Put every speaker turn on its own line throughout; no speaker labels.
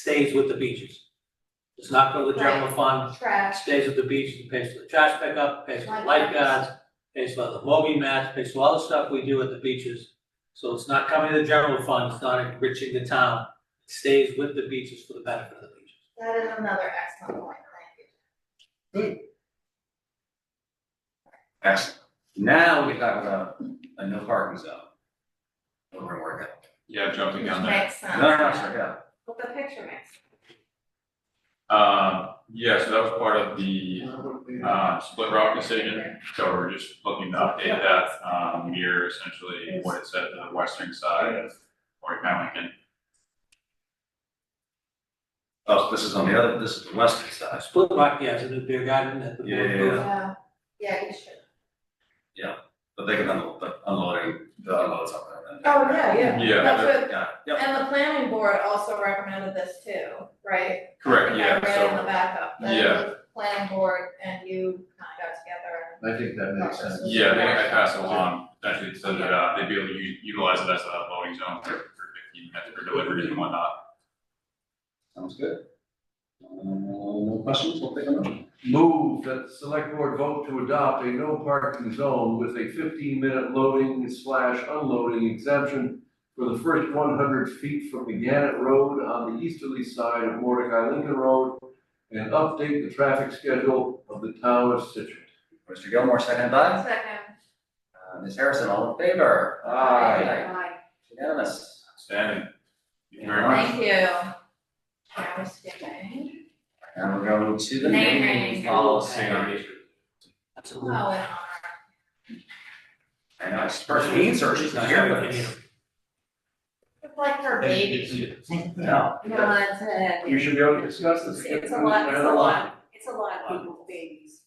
stays with the beaches. Does not go to the general fund,
trash,
stays with the beaches, pays for the trash pickup, pays for the lifeguards, pays for the mowing mats, pays for all the stuff we do at the beaches. So it's not coming to the general fund, it's not enriching the town, it stays with the beaches for the benefit of the beaches.
that is another excellent point,
Excellent. Now we talk about a no parking zone. We're gonna work out.
Yeah,
thank
jumping
you.
on
Which
that.
makes sense.
No, no, no, sorry, yeah.
But the picture makes, sense.
Um, yeah, so that was part of the, uh, split rock decision. So we're just looking to update that, um, mirror essentially what it said to the western side of Fort Lincoln.
Oh, this is on the other, this is the western
Uh,
side.
Split Rock, yeah, it's in the beer garden at the.
Yeah, yeah, yeah.
yeah, yeah, you should.
But they can unload, but unloading, the unloads up there then.
Oh, yeah, yeah.
Yeah,
That's what-
Yeah, yeah.
and the planning board also recommended this too, right?
Correct, yeah,
I read in the
so-
backup, that it
Yeah.
was planning board and you kind of got together
I think that
and.
makes sense.
Yeah, they, I passed along, actually, so that, uh, they'd be able to u- utilize it as a loading zone for, for fifteen minutes for deliveries and whatnot.
Sounds good. Uh, No questions, we'll take a motion.
Move that the select board vote to adopt a no parking zone with a fifteen minute loading slash unloading exemption for the first one hundred feet from the Gannett Road on the easterly side of Mordecai Lincoln Road and update the traffic schedule of the town of Citrus.
Mr. Gilmore, second by,
Second.
uh, Ms. Harrison, all in favor?
Aye.
Unanimous.
Standing. Thank you very much.
Thank you. I was Oh, skipping.
And we're going to the
Name
naming
rings.
policy.
That's a
Oh,
little-
and all right.
I know, it's first means or she's not here, but it's,
It's like her baby.
no.
No, that's it.
You should be able to discuss this.
It's, it's a lot, it's a lot, it's a lot of people's babies.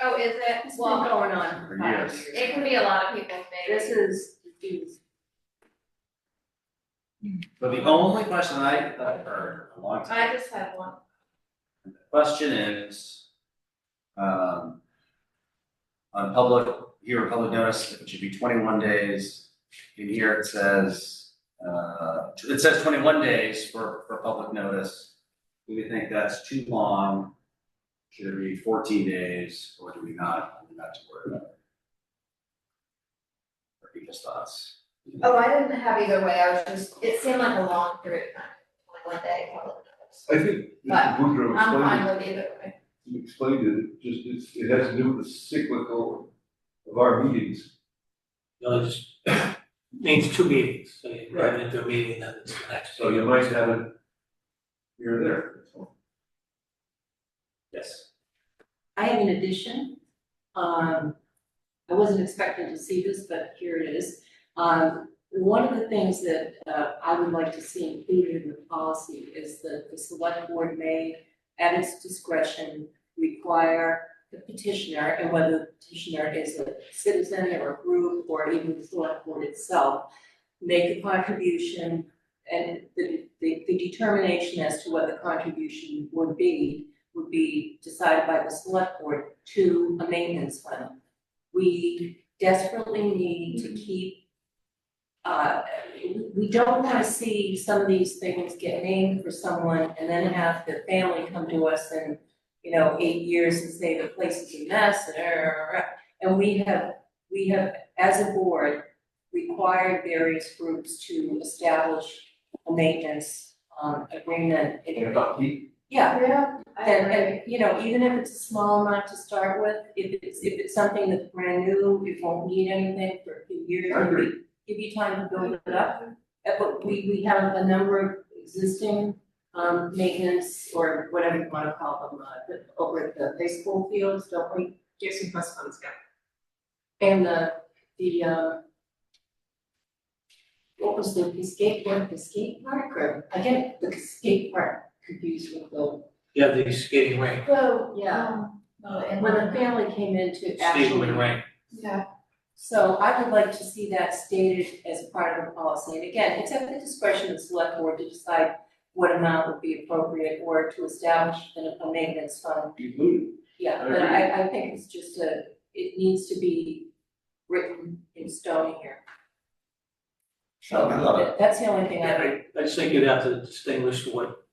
Oh, is it?
It's been
Well,
going on for five
Yes.
years.
it can be a lot of people's
This
babies.
is, geez,
But the only question I, that I've heard in a long time.
I just had one.
The Question is, um, on public, here, public notice, it should be twenty-one days. In here, it says, uh, it says twenty-one days for, for public notice. Do we think that's too long? Should it be fourteen days, or do we not, do we not to worry about it? Or people's thoughts?
Oh, I didn't have either way, I was just, it seemed like a long period of time, like one day, probably.
I think Mr.
But
Boudreaux
I'm fine
explained,
with either way.
he explained it, it just, it's, it has to do with the cyclical of our meetings.
No, it just means two meetings, so you run into a meeting, then it's the next.
So you might have it here or there, that's all.
Yes.
I have an addition. Um, I wasn't expecting to see this, but here it is. Um, one of the things that, uh, I would like to see included in the policy is that the select board may, at its discretion, require the petitioner, and whether the petitioner is a citizen or a group or even the select board itself, make a contribution and the, the, the determination as to what the contribution would be would be decided by the select board to a maintenance fund. We desperately need to keep, uh, we- we don't wanna see some of these things get named for someone and then have the family come to us in, you know, eight years and say the place is a mess and, uh, err. and we have, we have, as a board, required various groups to establish a maintenance, um, agreement.
And about heat,
Yeah,
Yeah. I
and,
agree.
and, you know, even if it's a small amount to start with, if it's, if it's something that's brand new, it won't need anything for a few years.
I agree.
Give you time to build it up, Uh, but we, we have a number of existing, um, maintenance or whatever you wanna call them, uh, the- over at the baseball fields, don't we? Jason Plus Funds, yeah. And the, the, uh, what was the, the skateboard, the skate park, or, I get the skate park confused with the
You have the skating rink,
So,
Yeah.
um, no, and
when the family came in to
skating
actually.
rink,
Yeah,
So I would like to see that stated as part of the policy, and again, it's at the discretion of the select board to decide what amount would be appropriate or to establish an- a maintenance fund.
included.
Yeah,
I
but
agree.
I, I think it's just a, it needs to be written in stone here. So
I love it.
that- that's the only thing I,
I, I just think you'd have to distinguish what